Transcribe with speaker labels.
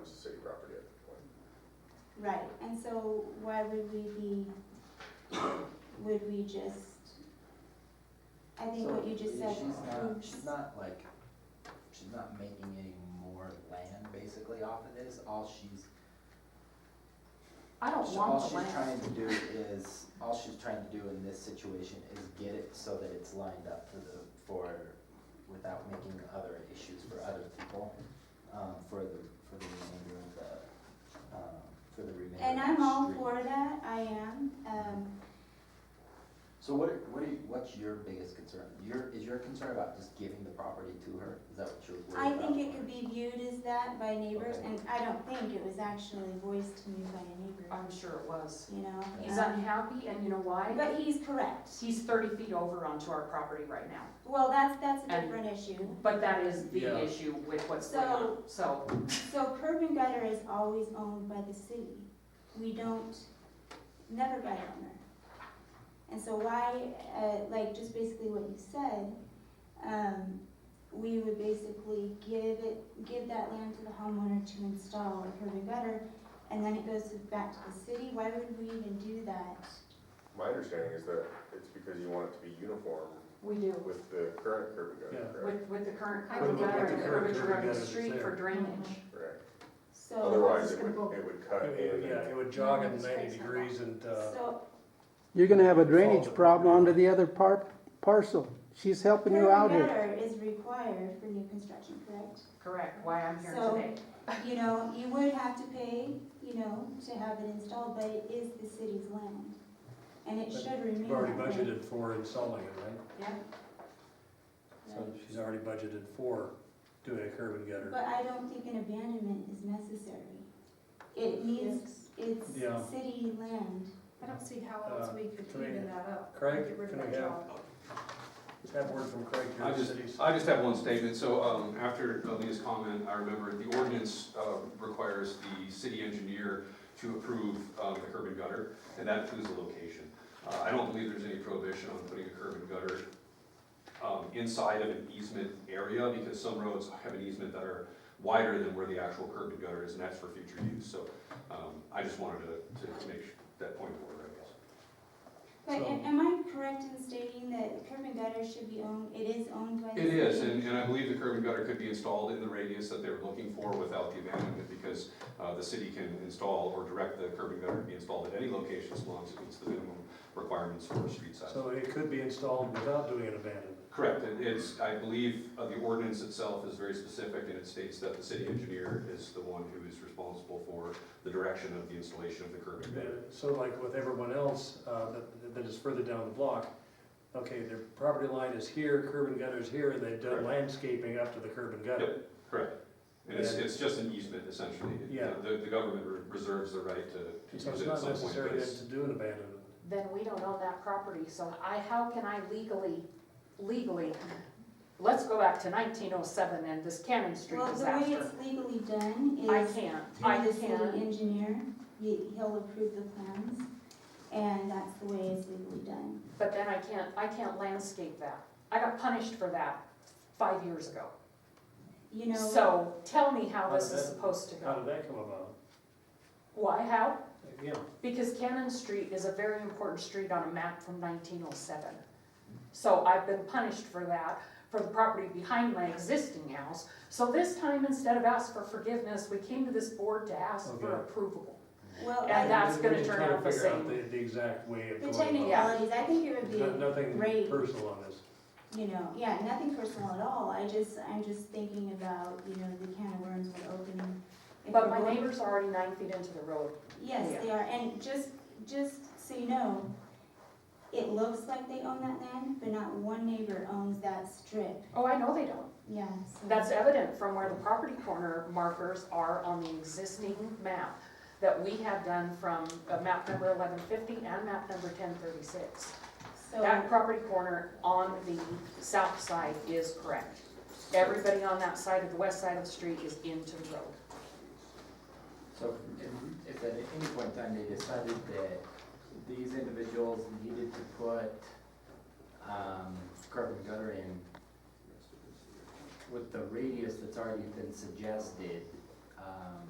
Speaker 1: was city property at the point.
Speaker 2: Right, and so why would we be, would we just, I think what you just said.
Speaker 3: She's not,
Speaker 2: proves-
Speaker 3: she's not like, she's not making any more land basically off of this, all she's,
Speaker 4: I don't
Speaker 3: all
Speaker 4: want the
Speaker 3: she's
Speaker 4: land.
Speaker 3: trying to do is, all she's trying to do in this situation is get it so that it's lined up for the, for, without making other issues for other people, um, for the, for the remainder of the, um, for the remainder of the
Speaker 2: And I'm all
Speaker 3: street.
Speaker 2: for that, I am, um,
Speaker 3: So what, are- what are, you- what's your biggest concern? Your, is your concern about just giving the property to her? Is that what you're
Speaker 2: I
Speaker 3: worried about?
Speaker 2: think it could be viewed as that by neighbors,
Speaker 3: Okay.
Speaker 2: and I don't think it was actually voiced to me by a neighbor,
Speaker 4: I'm sure it was.
Speaker 2: you know?
Speaker 4: He's
Speaker 2: um,
Speaker 4: unhappy and you know why?
Speaker 2: But he's correct,
Speaker 4: He's thirty feet over onto our property right now.
Speaker 2: well, that's, that's a
Speaker 4: And-
Speaker 2: different issue.
Speaker 4: But that is
Speaker 5: Yeah.
Speaker 4: the issue with what's going on, so.
Speaker 2: So curb and gutter is always owned by the city. We don't, never by owner. And so why, uh, like, just basically what you said, um, we would basically give it, give that land to the homeowner to install a curb and gutter, and then it goes to- back to the city, why would we even do that?
Speaker 1: My understanding is that it's because you want it to be uniform
Speaker 4: We do.
Speaker 1: with the current curb and gutter,
Speaker 5: Yeah.
Speaker 1: correct?
Speaker 4: With, with the current
Speaker 5: With
Speaker 4: curb
Speaker 5: the- with
Speaker 4: gutter
Speaker 5: the
Speaker 4: and
Speaker 5: current
Speaker 4: curvature of the
Speaker 5: curb gutter that's
Speaker 4: street for
Speaker 5: there.
Speaker 4: drainage.
Speaker 1: Correct.
Speaker 2: So.
Speaker 1: Otherwise,
Speaker 5: it's
Speaker 1: it
Speaker 5: gonna
Speaker 1: would, it would cut
Speaker 5: It would-
Speaker 1: in.
Speaker 5: Yeah,
Speaker 1: and-
Speaker 5: it would jog at ninety
Speaker 2: Straight
Speaker 5: degrees and, uh,
Speaker 2: So
Speaker 6: You're gonna have a
Speaker 5: Solve
Speaker 6: drainage
Speaker 5: it.
Speaker 6: problem onto the other par- parcel. She's helping you
Speaker 2: curb and
Speaker 6: out here.
Speaker 2: gutter is required for new construction, correct?
Speaker 4: Correct, why I'm here
Speaker 2: So-
Speaker 4: today.
Speaker 2: You know, you would have to pay, you know, to have it installed, but it is the city's land. And it
Speaker 5: But
Speaker 2: should remain.
Speaker 5: we've already
Speaker 2: that way.
Speaker 5: budgeted for installing it, right?
Speaker 4: Yeah,
Speaker 5: So she's already budgeted for doing a curb and gutter.
Speaker 2: But I don't think an abandonment is necessary. It needs, it's
Speaker 5: Yeah.
Speaker 2: city land.
Speaker 7: I don't see how else
Speaker 5: Uh,
Speaker 7: we could
Speaker 5: can we-
Speaker 7: even that up.
Speaker 5: Craig,
Speaker 7: Get rid of
Speaker 5: can we
Speaker 7: that
Speaker 5: have-
Speaker 7: job.
Speaker 5: Have word from Craig here
Speaker 8: I
Speaker 5: at
Speaker 8: just,
Speaker 5: cities.
Speaker 8: I just have one statement, so, um, after Leah's comment, I remember the ordinance, uh, requires the city engineer to approve, um, the curb and gutter, and that includes the location. Uh, I don't believe there's any prohibition on putting a curb and gutter, um, inside of an easement area, because some roads have an easement that are wider than where the actual curb and gutter is, and that's for future use, so, um, I just wanted to, to make that point forward, I guess.
Speaker 2: But
Speaker 5: So-
Speaker 2: am am I correct in stating that curb and gutter should be owned, it is owned by the
Speaker 8: It
Speaker 2: city?
Speaker 8: is, and, and I believe the curb and gutter could be installed in the radius that they were looking for without the abandonment, because, uh, the city can install or direct the curb and gutter to be installed at any location as long as it meets the minimum requirements for a street size.
Speaker 5: So it could be installed without doing an abandonment.
Speaker 8: Correct, and it's, I believe, uh, the ordinance itself is very specific, and it states that the city engineer is the one who is responsible for the direction of the installation of the curb and gutter.
Speaker 5: So like with everyone else, uh, that, that is further down the block, okay, their property line is here, curb and gutter is here, and they've done
Speaker 8: Correct.
Speaker 5: landscaping up to the curb and gutter.
Speaker 8: Correct, and it's,
Speaker 5: Yeah.
Speaker 8: it's just an easement essentially.
Speaker 5: Yeah.
Speaker 8: The, the government re- reserves the right to. to use
Speaker 5: So it's
Speaker 8: it at
Speaker 5: not
Speaker 8: some point, but
Speaker 5: necessary
Speaker 8: it's-
Speaker 5: then to do an abandonment.
Speaker 4: then we don't own that property, so I, how can I legally, legally? Let's go back to nineteen oh seven and this Cannon Street
Speaker 2: Well, the way
Speaker 4: disaster.
Speaker 2: it's legally done is.
Speaker 4: I can't, I
Speaker 2: through the city
Speaker 4: can't.
Speaker 2: engineer, he, he'll approve the plans, and that's the way it's legally done.
Speaker 4: But then I can't, I can't landscape that. I got punished for that five years ago.
Speaker 2: You know.
Speaker 4: So tell me how this is
Speaker 5: How's that?
Speaker 4: supposed to
Speaker 5: How
Speaker 4: go.
Speaker 5: did that come about?
Speaker 4: Why, how?
Speaker 5: Yeah,
Speaker 4: Because Cannon Street is a very important street on a map from nineteen oh seven. So I've been punished for that, for the property behind my existing house. So this time, instead of ask for forgiveness, we came to this board to ask for
Speaker 5: Okay.
Speaker 4: approval.
Speaker 2: Well,
Speaker 4: And
Speaker 2: I-
Speaker 4: that- that's
Speaker 5: We- we
Speaker 4: gonna
Speaker 5: just
Speaker 4: turn
Speaker 5: trying to
Speaker 4: out the
Speaker 5: figure out
Speaker 4: same.
Speaker 5: The, the exact way of
Speaker 2: the
Speaker 5: going about
Speaker 2: technicalities, I think it would
Speaker 5: it. No-
Speaker 2: be,
Speaker 5: Nothing
Speaker 2: great.
Speaker 5: personal on this.
Speaker 2: you know, yeah, nothing personal at all, I just, I'm just thinking about, you know, the can of worms would open. if
Speaker 4: But
Speaker 2: the
Speaker 4: my
Speaker 2: board-
Speaker 4: neighbors are already nine feet into the road.
Speaker 2: Yes, they are, and just, just so you know, it looks like they own that land, but not one neighbor owns that strip,
Speaker 4: Oh, I know they don't.
Speaker 2: yeah, so.
Speaker 4: That's evident from where the property corner markers are on the existing map that we had done from uh, map number eleven fifty and map number ten thirty-six.
Speaker 2: So.
Speaker 4: That property corner on the south side is correct. Everybody on that side of the west side of the street is into the road.
Speaker 3: So if, if at any point in time they decided that these individuals needed to put, um, curb and gutter in with the radius that's already been suggested, um,